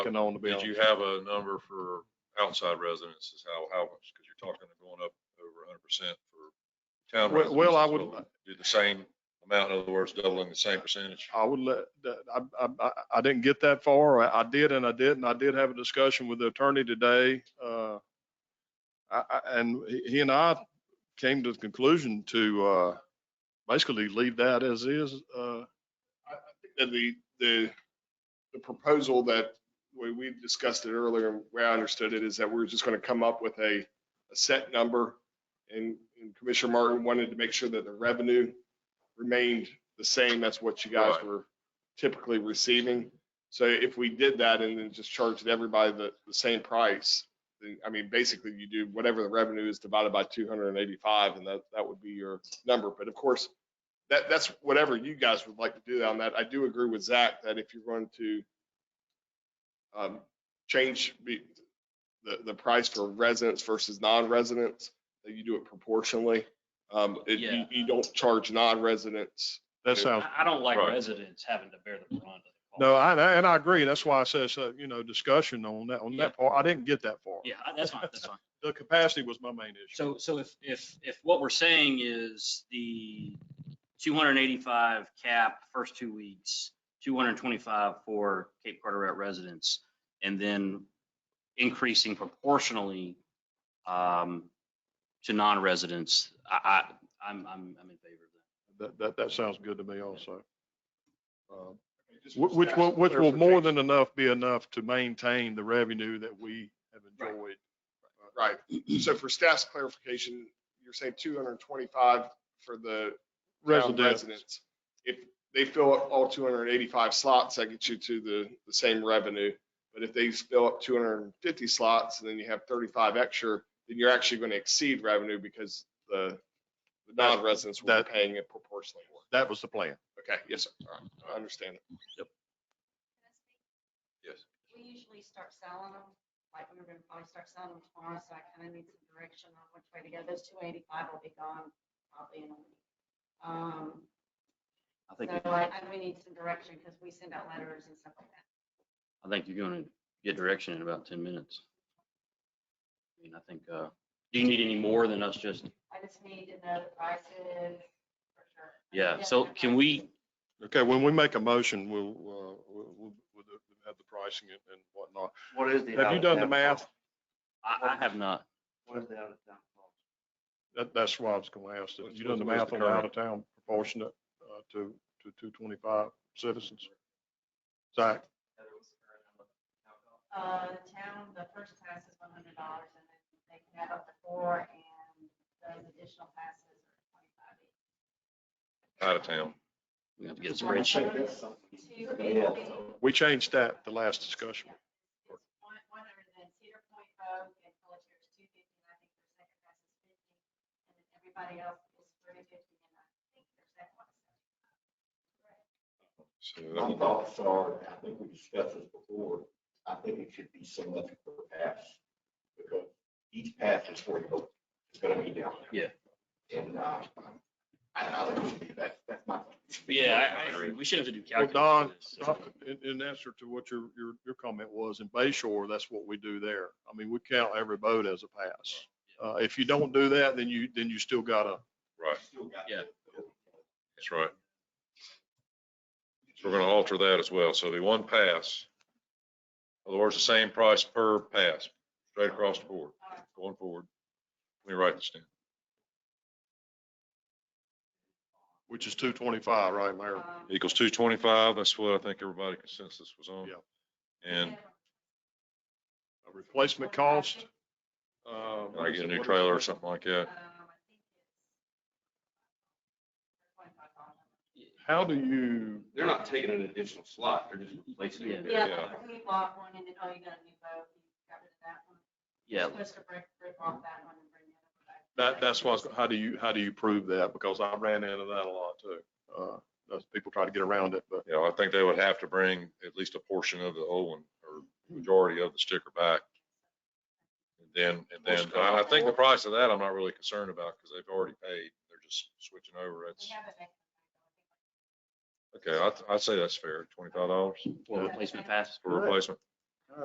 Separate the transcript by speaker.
Speaker 1: Can own the
Speaker 2: Did
Speaker 1: building.
Speaker 2: you have a number for outside residences? How, how much? Because you're talking going up over hundred percent for town
Speaker 1: Well-
Speaker 2: residents.
Speaker 1: well, I would-
Speaker 2: Do the same amount, in other words, doubling the same percentage.
Speaker 1: I would let, that- I, I- I, I didn't get that far. I I did and I didn't. I did have a discussion with the attorney today. uh, I, I, and he- he and I came to the conclusion to, uh, basically leave that as is. Uh,
Speaker 3: I, I think that the, the, the proposal that, we, we discussed it earlier, and way I understood it is that we're just gonna come up with a, a set number. And and Commissioner Martin wanted to make sure that the revenue remained the same. That's what you guys
Speaker 2: Right.
Speaker 3: were typically receiving. So if we did that and then just charged everybody the, the same price, then, I mean, basically you do whatever the revenue is divided by two hundred and eighty-five and that, that would be your number. But of course, that, that's whatever you guys would like to do on that. I do agree with Zach that if you're going to um, change be- the, the price for residents versus non-residents, that you do it proportionally. Um, it- you,
Speaker 4: Yeah.
Speaker 3: you don't charge non-residents.
Speaker 1: that sounds,
Speaker 4: I, I don't like
Speaker 2: Right.
Speaker 4: residents having to bear the brunt of it.
Speaker 1: Oh, no, I- and I, and I agree. That's why I says, uh, you know, discussion on that, on that part. I didn't get that far.
Speaker 4: Yeah, I- that's fine, that's fine.
Speaker 1: The capacity was my main issue.
Speaker 4: So, so if, if, if what we're saying is the two hundred and eighty-five cap first two weeks, two hundred and twenty-five for Cape Carteret residents, and then increasing proportionally um, to non-residents, I, I, I'm, I'm, I'm in favor of
Speaker 1: That,
Speaker 4: that.
Speaker 1: that, that sounds good to me also. Uh,
Speaker 3: Just
Speaker 1: Wh- Which
Speaker 3: for
Speaker 1: will, which will more
Speaker 3: clarification.
Speaker 1: than enough be enough to maintain the revenue that we have
Speaker 4: Right.
Speaker 1: enjoyed.
Speaker 3: Right. So for staff's clarification, you're saying two hundred and twenty-five for the town
Speaker 1: Residents,
Speaker 3: residents. If they fill up all two hundred and eighty-five slots, that gets you to the, the same revenue. But if they fill up two hundred and fifty slots, and then you have thirty-five extra, then you're actually going to exceed revenue because the, the
Speaker 1: That-
Speaker 3: non-residents will
Speaker 1: that-
Speaker 3: be paying it proportionally more.
Speaker 1: that was the plan.
Speaker 3: Okay, yes, sir. All right, I understand.
Speaker 5: Can I speak?
Speaker 2: Yes.
Speaker 5: We usually start selling them, like we we're gonna probably start selling them tomorrow, so I kind of need some direction on which way to go. Those two eighty-five will be gone probably in a week. Um,
Speaker 4: I
Speaker 5: so
Speaker 4: think, you-
Speaker 5: I, I- we need some direction because we send out letters and stuff like that.
Speaker 4: I think you're gonna get direction in about ten minutes. I mean, I think, uh, do you need any more than us just
Speaker 5: I just need to know the prices for sure.
Speaker 4: Yeah, so can we,
Speaker 1: Okay, when we make a motion, we'll, uh, we'll, we'll we'll have the pricing and and whatnot.
Speaker 6: What is the?
Speaker 1: Have you done the
Speaker 6: out-of-town
Speaker 1: math?
Speaker 6: cost?
Speaker 4: I, I have not.
Speaker 6: What is the out of town cost?
Speaker 1: That, that's why I was gonna ask. that.
Speaker 2: What's-
Speaker 1: You done the
Speaker 2: what's
Speaker 1: math
Speaker 2: the
Speaker 1: on the out
Speaker 2: current?
Speaker 1: of town proportionate, uh, to, to two twenty-five citizens? Zach,
Speaker 5: Uh, the town, the first pass is one hundred dollars and then they can add up to four and those additional passes are twenty-five each.
Speaker 2: Out of town.
Speaker 4: We have to get a
Speaker 5: One
Speaker 4: spreadsheet.
Speaker 5: hundred to eighty.
Speaker 1: we changed that the last discussion.
Speaker 5: It's one, one hundred, and then Cedar Point Vogue and Pelletier is two fifty, and I think their second best is fifty. And then everybody else is three fifty, and I think their second one is seventy-five.
Speaker 2: So that
Speaker 6: My
Speaker 2: would-
Speaker 6: thoughts are, and I think we discussed this before, I think it should be so much per pass. Because each pass is for, it's gonna be down there. Yeah. And, uh, I, I think it should be, that's, that's my.
Speaker 4: Yeah, I, I, we shouldn't have to do
Speaker 1: Well, Don,
Speaker 4: calculus.
Speaker 1: Doc, in, in answer to what your, your, your comment was, in Bay Shore, that's what we do there. I mean, we count every boat as a pass. Uh, if you don't do that, then you, then you still gotta,
Speaker 2: Right,
Speaker 4: Yeah.
Speaker 2: that's right. So we're going to alter that as well. So it'll be one pass. In other words, the same price per pass, straight across the board, going forward. Let me write this down.
Speaker 1: which is two twenty-five, right, Mayor?
Speaker 5: Um,
Speaker 2: Equals two twenty-five. That's what I think everybody consensus was on.
Speaker 1: Yeah.
Speaker 2: And
Speaker 1: A Replacement cost,
Speaker 3: Uh,
Speaker 2: I get a new trailer or something like that.
Speaker 5: Um, I think it's twenty-five dollars.
Speaker 1: how do you,
Speaker 6: They're not taking an additional slot, they're just replacing it.
Speaker 5: Yeah, we bought one, and then, oh, you got a new boat, you got rid of that one.
Speaker 4: Yeah,
Speaker 5: You're Supposed to break, rip off that one and bring the other one
Speaker 1: that,
Speaker 5: back.
Speaker 1: that's why, how do you, how do you prove that? Because I ran into that a lot too. Uh, those people try to get around it, but
Speaker 2: Yeah, I think they would have to bring at least a portion of the old one or majority of the sticker back. And then, and then, and I think the price of that, I'm not really concerned about because they've already paid. They're just switching over.
Speaker 5: We
Speaker 2: That's,
Speaker 5: haven't made.
Speaker 2: okay, I'd, I'd say that's fair, twenty-five dollars
Speaker 4: for replacement pass.
Speaker 2: for replacement.